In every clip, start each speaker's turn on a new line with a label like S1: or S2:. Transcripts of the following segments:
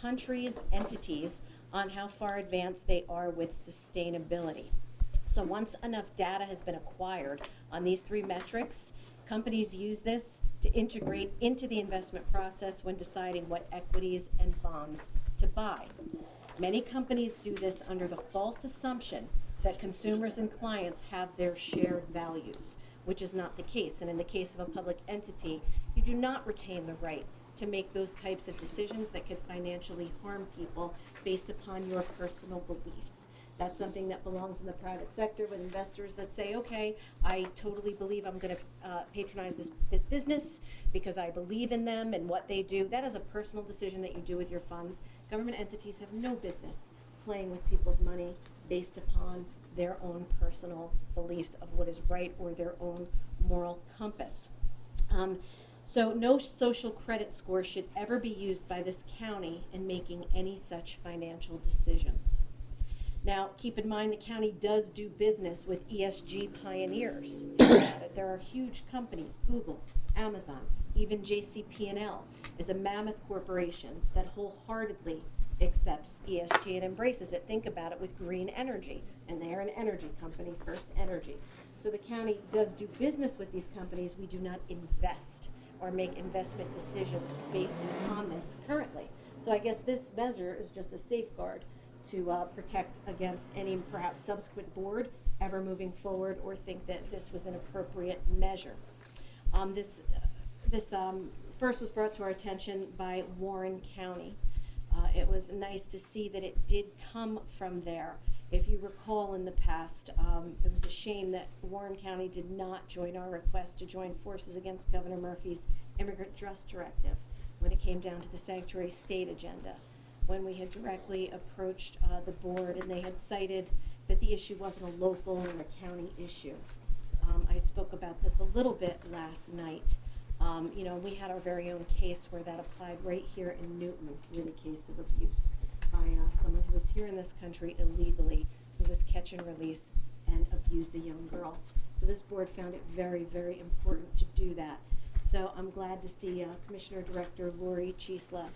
S1: countries, entities on how far advanced they are with sustainability. So once enough data has been acquired on these three metrics, companies use this to integrate into the investment process when deciding what equities and bonds to buy. Many companies do this under the false assumption that consumers and clients have their shared values, which is not the case. And in the case of a public entity, you do not retain the right to make those types of decisions that could financially harm people based upon your personal beliefs. That's something that belongs in the private sector with investors that say, okay, I totally believe I'm going to uh, patronize this, this business because I believe in them and what they do. That is a personal decision that you do with your funds. Government entities have no business playing with people's money based upon their own personal beliefs of what is right or their own moral compass. Um, so, no social credit score should ever be used by this county in making any such financial decisions. Now, keep in mind the county does do business with ESG pioneers. Think about it. There are huge companies, Google, Amazon, even JCP&L is a mammoth corporation that wholeheartedly accepts ESG and embraces it. Think about it with green energy, and they're an energy company, First Energy. So the county does do business with these companies. We do not invest or make investment decisions based upon this currently. So I guess this measure is just a safeguard to uh, protect against any perhaps subsequent board ever moving forward or think that this was an appropriate measure. Um, this this um, first was brought to our attention by Warren County. Uh, it was nice to see that it did come from there. If you recall in the past, um, it was a shame that Warren County did not join our request to join forces against Governor Murphy's immigrant trust directive when it came down to the sanctuary state agenda when we had directly approached uh, the board and they had cited that the issue wasn't a local or a county issue. Um, I spoke about this a little bit last night. Um, you know, we had our very own case where that applied right here in Newton with a case of abuse by uh, someone who was here in this country illegally, who was catch and release and abused a young girl. So this board found it very, very important to do that. So I'm glad to see uh, Commissioner Director Lori Chisla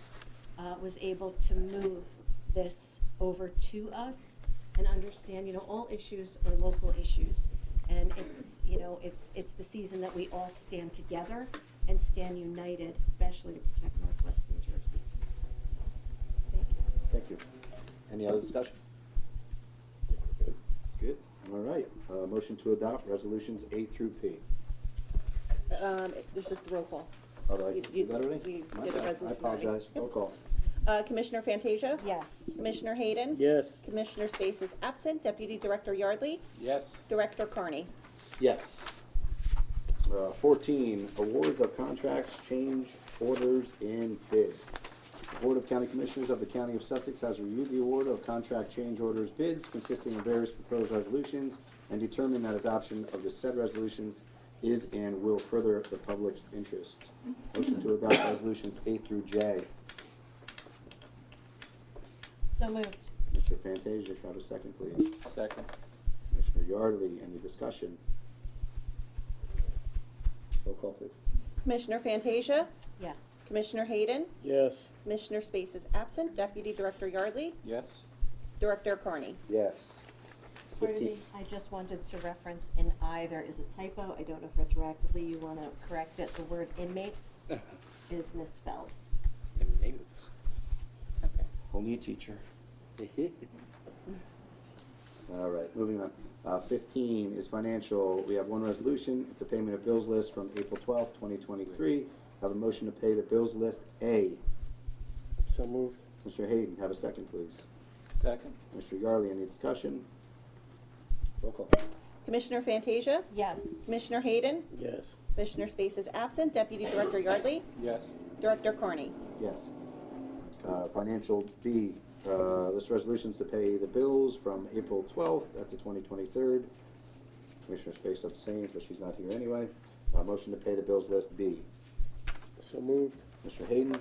S1: uh, was able to move this over to us and understand, you know, all issues are local issues. And it's, you know, it's, it's the season that we all stand together and stand united, especially to protect Northwest New Jersey. Thank you.
S2: Thank you. Any other discussion? Good, all right. Uh, motion to adopt resolutions A through P.
S3: Um, it's just roll call.
S2: All right,
S3: You-
S2: is that already?
S3: you- you
S2: My
S3: did the
S2: bad. I
S3: resolution already.
S2: apologize, roll call.
S3: Uh, Commissioner Fantasia?
S1: Yes,
S3: Commissioner Hayden?
S4: Yes.
S3: Commissioner Space is absent. Deputy Director Yardley?
S4: Yes.
S3: Director Carney?
S2: Yes. Uh, fourteen, awards of contracts, change orders, and bid. The Board of County Commissioners of the County of Sussex has reviewed the award of contract change orders bids consisting of various proposed resolutions and determined that adoption of the said resolutions is and will further the public's interest. Motion to adopt resolutions A through J.
S1: so moved.
S2: Mr. Fantasia, can I have a second, please?
S4: Second.
S2: Commissioner Yardley, any discussion? Roll call, please.
S3: Commissioner Fantasia?
S1: Yes,
S3: Commissioner Hayden?
S4: Yes.
S3: Commissioner Space is absent. Deputy Director Yardley?
S4: Yes.
S3: Director Carney?
S2: Yes.
S1: Part of the-
S2: Fifteen.
S1: I just wanted to reference in either is a typo. I don't know if retroactively you want to correct it. The word inmates is misspelled.
S2: Only a teacher. All right, moving on. Uh, fifteen is financial. We have one resolution. It's a payment of bills list from April twelfth, twenty twenty-three. Have a motion to pay the bills list A.
S4: So moved.
S2: Mr. Hayden, have a second, please.
S4: Second.
S2: Mr. Yardley, any discussion? Roll call.
S3: Commissioner Fantasia?
S1: Yes,
S3: Commissioner Hayden?
S4: Yes.
S3: Commissioner Space is absent. Deputy Director Yardley?
S4: Yes.
S3: Director Carney?
S2: Yes. Uh, Financial B, uh, this resolution's to pay the bills from April 12th at the 2023rd. Commissioner Space abstains, but she's not here anyway. Uh, Motion to pay the bills list B.
S4: So moved.
S2: Mr. Hayden,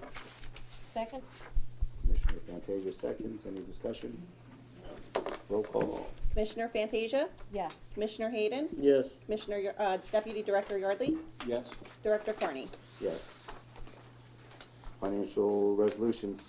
S1: second?
S2: Commissioner Fantasia seconds. Any discussion? Roll call.
S3: Commissioner Fantasia?
S1: Yes.
S3: Commissioner Hayden?
S4: Yes.
S3: Commissioner, Yar- uh, Deputy Director Yardley?
S4: Yes.
S3: Director Carney?
S2: Yes. Financial Resolution